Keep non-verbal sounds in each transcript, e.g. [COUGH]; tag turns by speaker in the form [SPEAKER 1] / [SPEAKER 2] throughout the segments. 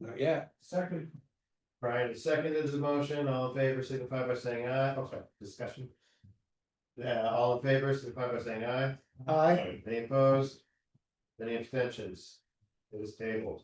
[SPEAKER 1] Not yet.
[SPEAKER 2] Second. Brian seconded the motion, all in favor, signify by saying aye, oh, sorry, discussion. Yeah, all in favor, signify by saying aye. Aye. Any opposed? Any abstentions? It is tabled.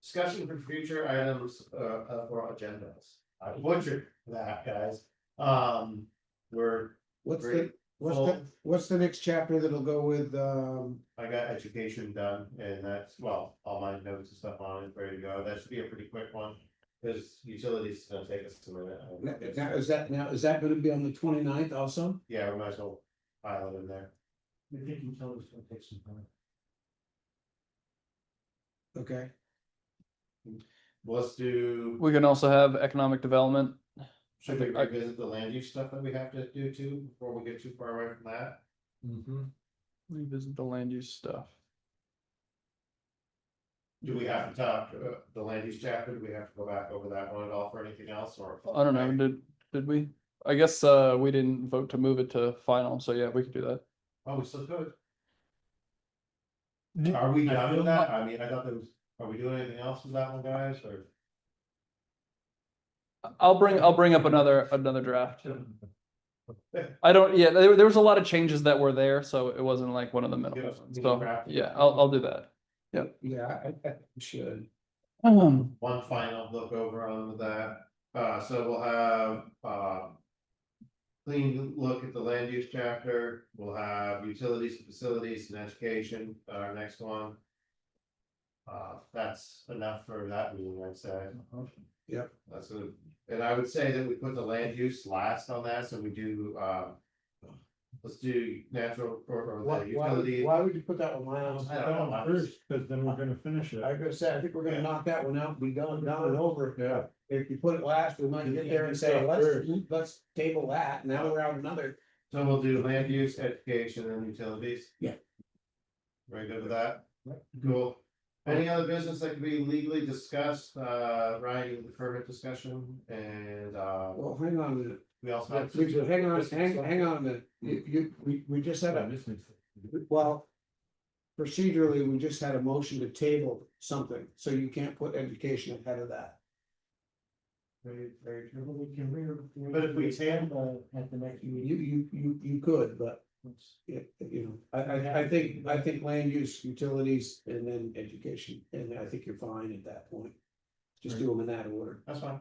[SPEAKER 2] Discussion for future items, uh, uh, or agendas. I butchered that, guys. Um, we're,
[SPEAKER 1] What's the,
[SPEAKER 2] Great.
[SPEAKER 1] what's the, what's the next chapter that'll go with, um,
[SPEAKER 2] I got education done and that's, well, all my notes and stuff on it, ready to go. That should be a pretty quick one. Cause utilities is gonna take us a minute.
[SPEAKER 1] now, now, is that, now, is that gonna be on the 29th also?
[SPEAKER 2] Yeah, we might as well pile it in there.
[SPEAKER 3] I think utilities will take some time.
[SPEAKER 1] Okay,
[SPEAKER 2] Let's do,
[SPEAKER 4] We can also have economic development.
[SPEAKER 2] should we
[SPEAKER 4] I-
[SPEAKER 2] revisit the land use stuff that we have to do too, before we get too far away from that?
[SPEAKER 4] Revisit the land use stuff.
[SPEAKER 2] Do we have to talk, uh, the land use chapter, do we have to go back over that one at all for anything else or?
[SPEAKER 4] I don't know, did, did we? I guess, uh, we didn't vote to move it to final, so yeah, we could do that.
[SPEAKER 2] Oh, we still could.
[SPEAKER 4] Do-
[SPEAKER 2] Are we
[SPEAKER 3] I
[SPEAKER 2] done
[SPEAKER 3] feel
[SPEAKER 2] with that? I mean, I thought there was, are we doing anything else with that one, guys, or?
[SPEAKER 4] I'll bring, I'll bring up another, another
[SPEAKER 2] [LAUGHS]
[SPEAKER 4] draft. I don't, yeah, there, there was a lot of changes that were there, so it wasn't like one of the
[SPEAKER 2] Give
[SPEAKER 4] minimal
[SPEAKER 2] us
[SPEAKER 4] ones,
[SPEAKER 2] a
[SPEAKER 4] so,
[SPEAKER 2] draft.
[SPEAKER 4] yeah, I'll, I'll do that.
[SPEAKER 1] yeah, I, I think we should.
[SPEAKER 4] Um,
[SPEAKER 2] one final look over on that, uh, so we'll have, uh. Clean look at the land use chapter, we'll have utilities, facilities and education, our next one. Uh, that's enough for that meeting, I'd say.
[SPEAKER 3] Uh-huh.
[SPEAKER 1] Yep.
[SPEAKER 2] That's a, and I would say that we put the land use last on that, so we do, um. Let's do natural or or
[SPEAKER 3] Why,
[SPEAKER 2] the
[SPEAKER 3] why, would-
[SPEAKER 2] utilities.
[SPEAKER 3] why would you put that one on?
[SPEAKER 2] I don't know.
[SPEAKER 3] First, cause then we're gonna finish it.
[SPEAKER 1] I was gonna say, I think we're gonna knock that one out, be done, down and over.
[SPEAKER 3] Yeah.
[SPEAKER 1] If you put it last, we might get there and say, let's, let's table that, now we're out another.
[SPEAKER 2] So we'll do land use, education and utilities?
[SPEAKER 1] Yeah.
[SPEAKER 2] Very good with that?
[SPEAKER 3] Yep.
[SPEAKER 2] Cool. Any other business that could be legally discussed, uh, Ryan, you prefer a discussion and, uh,
[SPEAKER 1] Well, hang on a minute,
[SPEAKER 2] we also
[SPEAKER 1] Yeah,
[SPEAKER 2] have.
[SPEAKER 1] we should- Uh, hang on, hang, hang on a minute, you, you, we, we just had a, well. Procedurally, we just had a motion to table something, so you can't put education ahead of that.
[SPEAKER 3] Very, very true. We can re.
[SPEAKER 2] But if we can-
[SPEAKER 3] uh, At the next meeting.
[SPEAKER 1] You, you, you, you could, but it, you know, I, I, I think, I think land use, utilities, and then education, and I think you're fine at that point. Just do them in that order.
[SPEAKER 2] That's fine.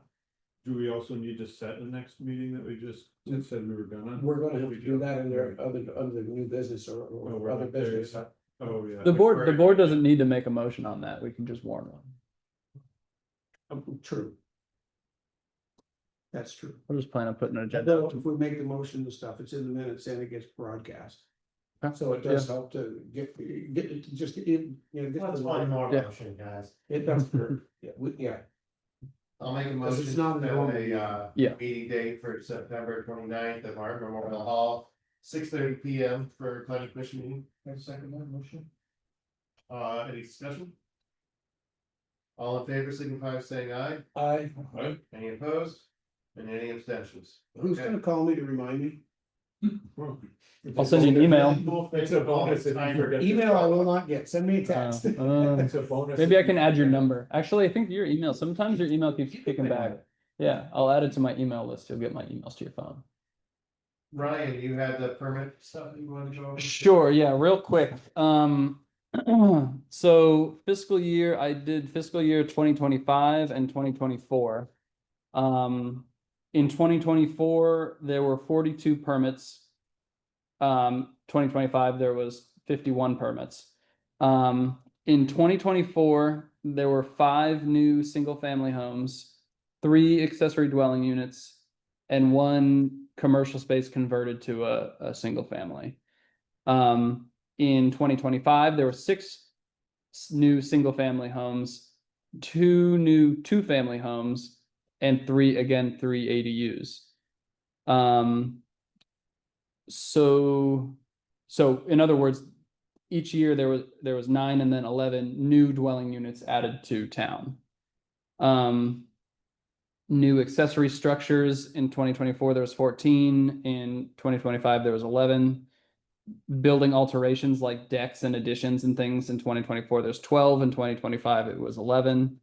[SPEAKER 5] Do we also need to set the next meeting that we just said we were gonna?
[SPEAKER 1] We're gonna have to do that under other, under new business or,
[SPEAKER 5] Oh,
[SPEAKER 1] or
[SPEAKER 5] we're
[SPEAKER 1] other
[SPEAKER 5] not there
[SPEAKER 1] business.
[SPEAKER 5] yet. Oh, yeah.
[SPEAKER 4] the board, the board doesn't need to make a motion on that, we can just warn one.
[SPEAKER 1] Um, True. That's true.
[SPEAKER 4] We're just planning on putting an agenda.
[SPEAKER 1] Though if we make the motion and stuff, it's in the minutes and it gets broadcast.
[SPEAKER 4] Okay. Uh,
[SPEAKER 1] So it does help to get, get, just, it, you know. get
[SPEAKER 2] That's
[SPEAKER 1] the
[SPEAKER 2] one
[SPEAKER 1] line.
[SPEAKER 2] more
[SPEAKER 4] Yeah.
[SPEAKER 2] motion, guys.
[SPEAKER 1] It does, hurt. yeah, we- yeah,
[SPEAKER 2] I'll make a
[SPEAKER 1] Because
[SPEAKER 2] motion.
[SPEAKER 1] it's not
[SPEAKER 2] to
[SPEAKER 1] an normal
[SPEAKER 2] set
[SPEAKER 1] meeting.
[SPEAKER 2] A, uh,
[SPEAKER 4] Yeah.
[SPEAKER 2] meeting date for September 29th at Martin Memorial Hall, six thirty P M for planning commission meeting.
[SPEAKER 3] second motion.
[SPEAKER 2] Uh, any discussion? All in favor, signify by saying aye.
[SPEAKER 1] I,
[SPEAKER 2] Any opposed? And any abstentions?
[SPEAKER 1] who's
[SPEAKER 2] Okay.
[SPEAKER 1] gonna call me to remind me?
[SPEAKER 4] I'll send you an email.
[SPEAKER 5] It's a bonus if you forget.
[SPEAKER 1] Email I will not get, send me a
[SPEAKER 4] Uh,
[SPEAKER 1] text.
[SPEAKER 4] uh,
[SPEAKER 5] a bonus.
[SPEAKER 4] Maybe I can add your number. Actually, I think your email, sometimes your email keeps kicking back. Yeah, I'll add it to my email list. You'll get my emails to your phone.
[SPEAKER 2] Ryan, you had the permit stuff you wanted to go over?
[SPEAKER 4] Sure, yeah, real quick. Um, [CLEARS THROAT] so fiscal year, I did fiscal year twenty twenty-five and twenty twenty-four. Um, in twenty twenty-four, there were forty-two permits. Um, twenty twenty-five, there was fifty-one permits. Um, in twenty twenty-four, there were five new single-family homes, three accessory dwelling units, and one commercial space converted to a, a single-family. Um, in twenty twenty-five, there were six s- new single-family homes, two new two-family homes, and three, again, three ADUs. Um, so, so in other words, each year there was, there was nine and then eleven new dwelling units added to town. Um, new accessory structures in twenty twenty-four, there was fourteen, in twenty twenty-five, there was eleven building alterations like decks and additions and things in twenty twenty-four, there's twelve, in twenty twenty-five, it was eleven.